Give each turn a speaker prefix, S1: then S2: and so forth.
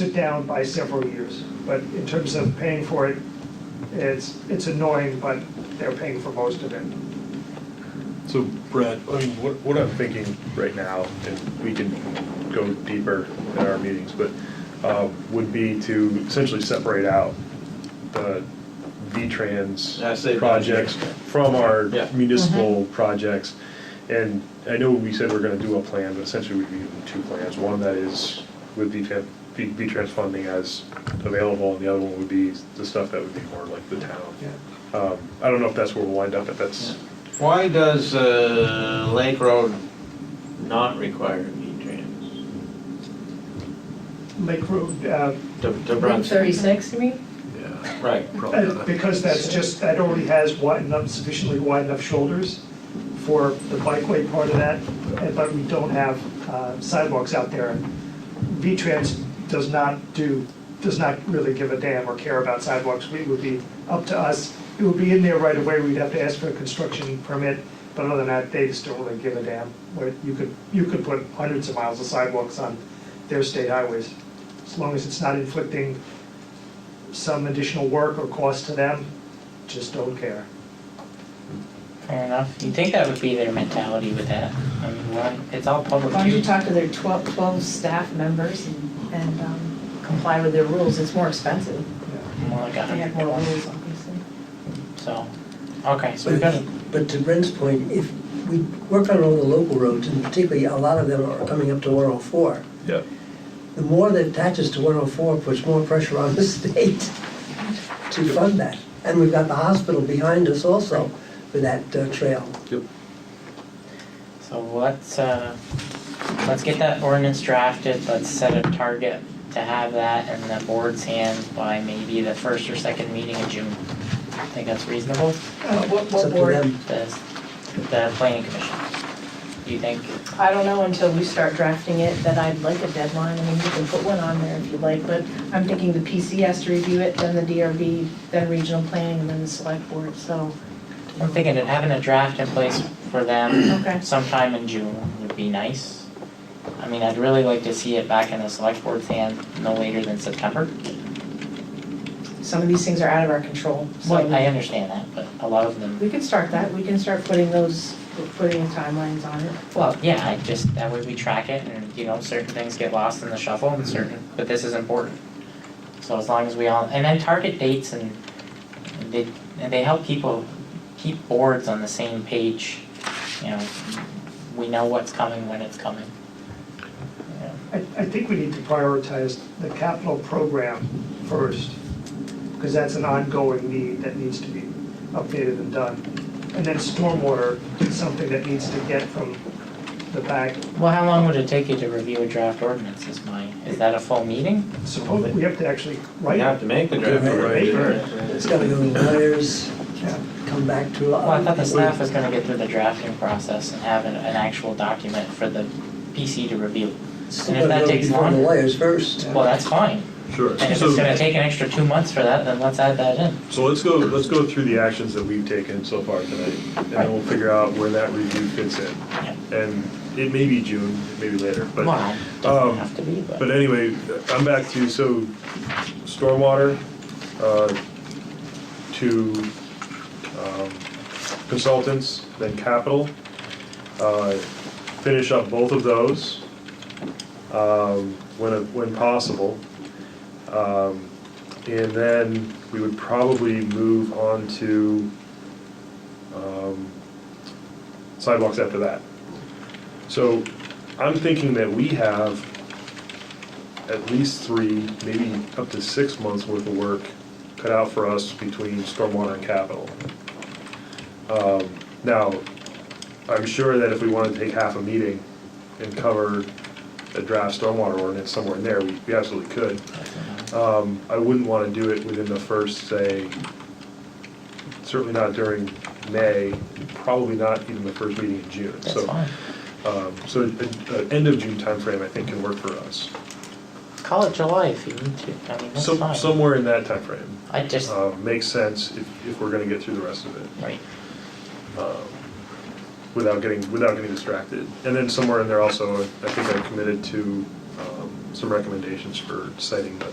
S1: it down by several years. But in terms of paying for it, it's, it's annoying, but they're paying for most of it.
S2: So Brett,
S3: I mean, what, what I'm thinking right now, and we can go deeper in our meetings, but, uh, would be to essentially separate out the
S4: I
S3: V-Trans
S4: say-
S3: projects from our
S4: Yeah.
S3: municipal projects. And I know we said we're gonna do a plan, but essentially we'd be doing two plans. One that is with V-Trans, V-Trans funding as available, and the other one would be the stuff that would be more like the town. Um, I don't know if that's where we'll wind up, if that's
S4: Why does uh, Lake Road not require V-Trans?
S1: Lake Road, uh,
S4: To to
S5: Route
S4: Brunswick?
S5: thirty-six, you mean?
S2: yeah,
S4: Right.
S2: probably
S1: uh,
S2: not.
S1: because that's just, that already has wide enough, sufficiently wide enough shoulders for the bikeway part of that, and- but we don't have uh, sidewalks out there. V-Trans does not do, does not really give a damn or care about sidewalks. It would be up to us, it would be in there right away, we'd have to ask for a construction permit, but other than that, they just don't really give a damn. Where you could, you could put hundreds of miles of sidewalks on their state highways, as long as it's not inflicting some additional work or cost to them, just don't care.
S6: Fair enough. You'd think that would be their mentality with that. I mean, why, it's all public.
S5: Why don't you
S6: use.
S5: talk to their 12 12 staff members and, and um, comply with their rules, it's more expensive.
S6: More like a
S5: They
S6: hundred
S5: have more
S6: dollars,
S5: rules, obviously.
S6: so, okay, so we've got,
S7: But but to Brent's point, if we work on all the local roads, and particularly a lot of them are coming up to 104,
S2: Yeah.
S7: the more that attaches to 104 puts more pressure on the state to fund that. And we've got the hospital behind us also for that uh, trail.
S6: so let's, uh, let's get that ordinance drafted, let's set a target to have that in the board's hands by maybe the first or second meeting in June. Think that's reasonable?
S5: Uh, What,
S7: It's
S5: what
S7: up to
S5: board?
S7: them.
S6: The, the planning commission, do you think?
S5: I don't know until we start drafting it that I'd like a deadline, I mean, you can put one on there if you'd like, but I'm thinking the PC has to review it, then the DRB, then regional planning, and then the select board, so.
S6: I'm thinking that having a draft in place for them
S5: Okay.
S6: sometime in June would be nice. I mean, I'd really like to see it back in the select board's hand no later than September.
S5: Some of these things are out of our control, so.
S6: Well, I understand that, but a lot of them,
S5: We can start that, we can start putting those, putting timelines on it.
S6: well, yeah, I just, that way we track it and, you know, certain things get lost in the shuffle and certain, but this is important. So as long as we all, and then target dates and they, and they help people keep boards on the same page, you know. We know what's coming, when it's coming. You know.
S1: I, I think we need to prioritize the capital program first, because that's an ongoing need that needs to be updated and done. And then stormwater is something that needs to get from the back.
S6: Well, how long would it take you to review a draft ordinance is my, is that a full meeting?
S1: Suppose, we have to actually
S4: We
S1: write
S4: have
S1: it.
S4: to make the
S2: have
S4: draft.
S7: to
S2: write
S1: it.
S7: It's gotta go to lawyers,
S1: Yeah.
S7: come back to. uh,
S6: Well, I thought the staff was gonna get through the drafting process and have an, an actual document for the PC to review.
S7: Still
S6: and if
S7: gotta
S6: that
S7: go
S6: takes
S7: before the
S6: long-
S7: lawyers first.
S6: Well, that's fine,
S2: Sure.
S6: and if
S2: So-
S6: it's gonna take an extra two months for that, then let's add that in.
S3: So let's go, let's go through the actions that we've taken so far tonight, and then we'll figure out where that review fits in. And it may be June, it may be later, but.
S6: Well,
S3: um,
S6: doesn't have to be,
S3: But
S6: but,
S3: anyway, I'm back to, so stormwater, uh, to um, consultants, then capital. uh, Finish up both of those um, when, when possible. Um, And then we would probably move on to um, sidewalks after that. So I'm thinking that we have at least three, maybe up to six months worth of work cut out for us between stormwater and capital. Um, Now, I'm sure that if we wanted to take half a meeting and cover a draft stormwater ordinance somewhere in there, we we absolutely could. Um, I wouldn't want to do it within the first, say, certainly not during May, probably not even the first meeting in June.
S6: that's
S3: So,
S6: fine.
S3: um, So, an end of June timeframe, I think, can work for us.
S6: Call it July if you need to, I mean, that's
S3: Some,
S6: fine.
S3: somewhere in that timeframe,
S6: I just,
S3: uh, makes sense if, if we're gonna get through the rest of it,
S6: right,
S3: um, without getting, without getting distracted. And then somewhere in there also, I think I committed to, um, some recommendations for citing the